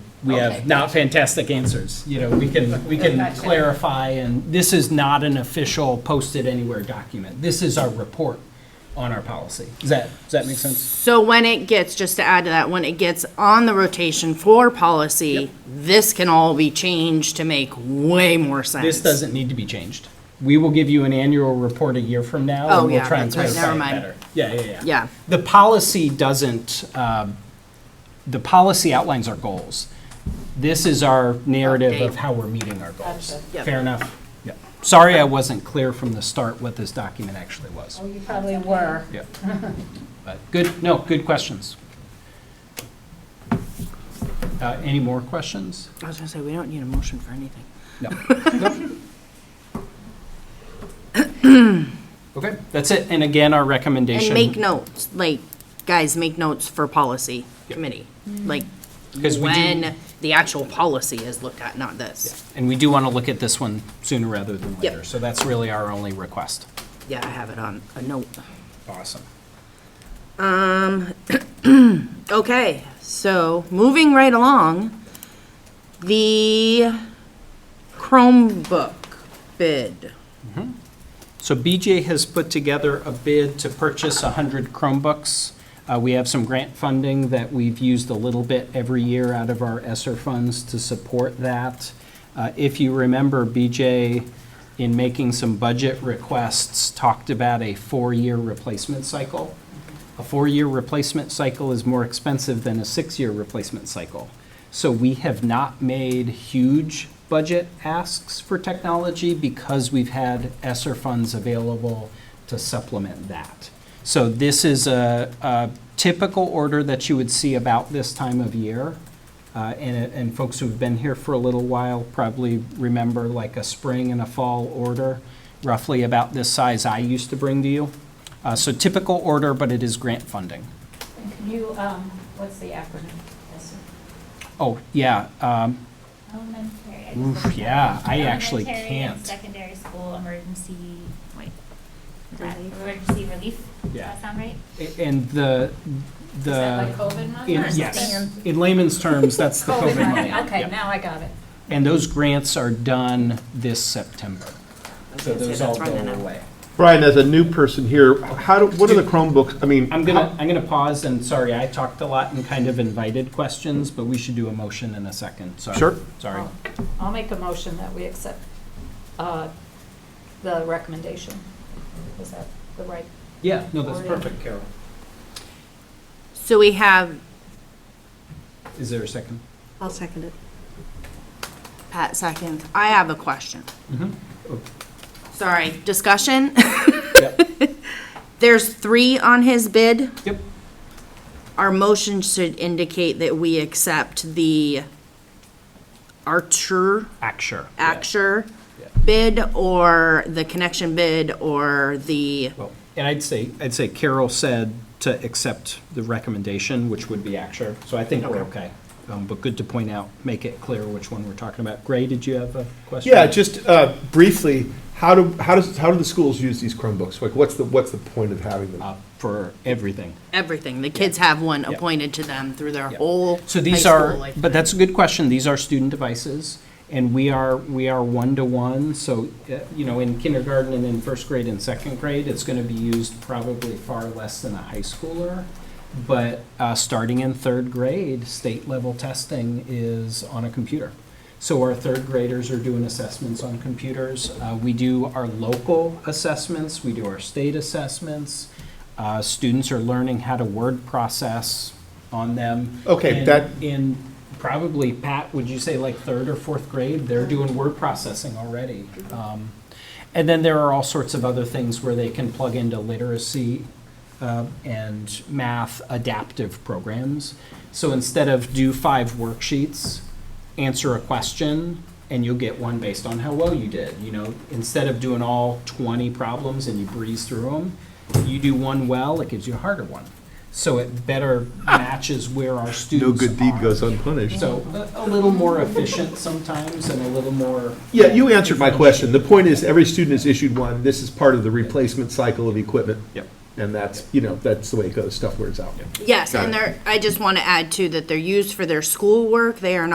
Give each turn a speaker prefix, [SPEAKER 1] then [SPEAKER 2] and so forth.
[SPEAKER 1] we have
[SPEAKER 2] Okay.
[SPEAKER 1] not fantastic answers. You know, we can, we can
[SPEAKER 2] Gotcha.
[SPEAKER 1] clarify, and this is not an official posted anywhere document. This is our report on our policy. Does that, does that make sense?
[SPEAKER 2] So when it gets, just to add to that, when it gets on the rotation for policy, this can all be changed to make way more sense.
[SPEAKER 1] This doesn't need to be changed. We will give you an annual report a year from now,
[SPEAKER 2] Oh,
[SPEAKER 1] and we'll
[SPEAKER 2] yeah,
[SPEAKER 1] try and
[SPEAKER 2] that's right.
[SPEAKER 1] clarify it
[SPEAKER 2] Never mind.
[SPEAKER 1] better. Yeah, yeah, yeah.
[SPEAKER 2] Yeah.
[SPEAKER 1] The policy doesn't, um, the policy outlines our goals. This is our narrative of
[SPEAKER 2] Update.
[SPEAKER 1] how we're meeting our goals.
[SPEAKER 2] Yep.
[SPEAKER 1] Fair enough? Yep. Sorry I wasn't clear from the start what this document actually was.
[SPEAKER 3] Well, you probably were.
[SPEAKER 1] Yeah. But good, no, good questions. Uh, Any more questions?
[SPEAKER 2] I was gonna say, we don't need a motion for anything.
[SPEAKER 1] No. Okay, that's it. And again, our
[SPEAKER 2] And
[SPEAKER 1] recommendation.
[SPEAKER 2] make notes, like, guys, make notes for policy
[SPEAKER 1] Yep.
[SPEAKER 2] committee, like,
[SPEAKER 1] 'Cause we do-
[SPEAKER 2] when the actual policy is looked at, not this.
[SPEAKER 1] And we do want to look at this one sooner rather than
[SPEAKER 2] Yep.
[SPEAKER 1] later. So that's really our only request.
[SPEAKER 2] Yeah, I have it on a note.
[SPEAKER 1] Awesome.
[SPEAKER 2] Um, Okay, so, moving right along, the Chromebook bid.
[SPEAKER 1] So BJ has put together a bid to purchase 100 Chromebooks. Uh, We have some grant funding that we've used a little bit every year out of our ESSER funds to support that. Uh, If you remember, BJ, in making some budget requests, talked about a four-year replacement cycle. A four-year replacement cycle is more expensive than a six-year replacement cycle. So we have not made huge budget asks for technology because we've had ESSER funds available to supplement that. So this is a, a typical order that you would see about this time of year. Uh, and, it- and folks who've been here for a little while probably remember like a spring and a fall order, roughly about this size I used to bring to you. Uh, so typical order, but it is grant funding.
[SPEAKER 3] And Can you, um, what's the acronym? Yes, sir.
[SPEAKER 1] Oh, yeah, um,
[SPEAKER 4] Elementary. I
[SPEAKER 1] Oof,
[SPEAKER 4] just looked it
[SPEAKER 1] yeah,
[SPEAKER 4] up.
[SPEAKER 1] I actually
[SPEAKER 4] Elementary and
[SPEAKER 1] can't.
[SPEAKER 4] Secondary school emergency, wait, is that
[SPEAKER 2] Relief.
[SPEAKER 4] emergency relief? Does
[SPEAKER 1] Yeah.
[SPEAKER 4] that sound right?
[SPEAKER 1] a- and the,
[SPEAKER 3] Is that like
[SPEAKER 1] the,
[SPEAKER 3] COVID money?
[SPEAKER 1] in-
[SPEAKER 4] or
[SPEAKER 1] yes,
[SPEAKER 4] something?
[SPEAKER 1] in layman's terms, that's the
[SPEAKER 3] COVID money,
[SPEAKER 1] Yeah.
[SPEAKER 3] okay, now I got it.
[SPEAKER 1] And those grants are done this September. So
[SPEAKER 2] I was gonna say,
[SPEAKER 1] those all
[SPEAKER 2] that's
[SPEAKER 1] go
[SPEAKER 2] running out.
[SPEAKER 1] away.
[SPEAKER 5] Brian, as a new person here, how do, what are the Chromebooks, I mean,
[SPEAKER 1] I'm gonna, I'm gonna pause and, sorry, I talked a lot and kind of invited questions, but we should do a motion in a second, sorry.
[SPEAKER 5] Sure.
[SPEAKER 1] Sorry.
[SPEAKER 2] Oh.
[SPEAKER 3] I'll- I'll make a motion that we accept uh, the recommendation. Is that the right?
[SPEAKER 1] Yeah, no,
[SPEAKER 2] Oh,
[SPEAKER 1] that's
[SPEAKER 3] Or-
[SPEAKER 1] perfect, Carol.
[SPEAKER 2] So we have
[SPEAKER 1] Is there a second?
[SPEAKER 2] I'll second it. Pat seconds. I have a question.
[SPEAKER 1] Mm-hmm.
[SPEAKER 2] Sorry, discussion?
[SPEAKER 1] Yep,
[SPEAKER 2] There's three on his bid.
[SPEAKER 1] yep,
[SPEAKER 2] Our motion should indicate that we accept the Archer,
[SPEAKER 1] Acture. yeah.
[SPEAKER 2] Acture
[SPEAKER 1] Yeah.
[SPEAKER 2] bid, or the connection bid, or the,
[SPEAKER 1] Well, And I'd say, I'd say Carol said to accept the recommendation, which would be Acture, so I think we're okay. Um, But good to point out, make it clear which one we're talking about. Gray, did you have a question?
[SPEAKER 5] yeah, just uh, briefly, how do, how does, how do the schools use these Chromebooks? Like, what's the, what's the point of having them?
[SPEAKER 1] Uh, For everything.
[SPEAKER 2] everything. The kids have one
[SPEAKER 1] Yeah.
[SPEAKER 2] appointed to them through their
[SPEAKER 1] Yeah.
[SPEAKER 2] whole
[SPEAKER 1] So
[SPEAKER 2] high
[SPEAKER 1] these
[SPEAKER 2] school
[SPEAKER 1] are,
[SPEAKER 2] life.
[SPEAKER 1] but that's a good question. These are student devices, and we are, we are one-to-one, so, uh, you know, in kindergarten and in first grade and second grade, it's gonna be used probably far less than a high schooler. But, uh, starting in third grade, state-level testing is on a computer. So our third graders are doing assessments on computers. Uh, we do our local assessments, we do our state assessments. Uh, students are learning how to word process on them.
[SPEAKER 5] Okay,
[SPEAKER 1] And
[SPEAKER 5] that-
[SPEAKER 1] in probably, Pat, would you say like third or fourth grade, they're doing word processing already. Um, And then there are all sorts of other things where they can plug into literacy uh, and math adaptive programs. So instead of do five worksheets, answer a question, and you'll get one based on how well you did, you know? Instead of doing all 20 problems and you breeze through them, you do one well, it gives you a harder one. So it better matches where our
[SPEAKER 5] No
[SPEAKER 1] students are.
[SPEAKER 5] good deed goes unpunished.
[SPEAKER 1] So a a little more efficient sometimes and a little more.
[SPEAKER 5] Yeah, you answered my question. The point is, every student is issued one, this is part of the replacement cycle of equipment.
[SPEAKER 1] Yep.
[SPEAKER 5] And that's, you know, that's the way it goes, stuff wears out.
[SPEAKER 2] Yes,
[SPEAKER 5] Got
[SPEAKER 2] and
[SPEAKER 5] it.
[SPEAKER 2] they're, I just want to add too, that they're used for their schoolwork. They are not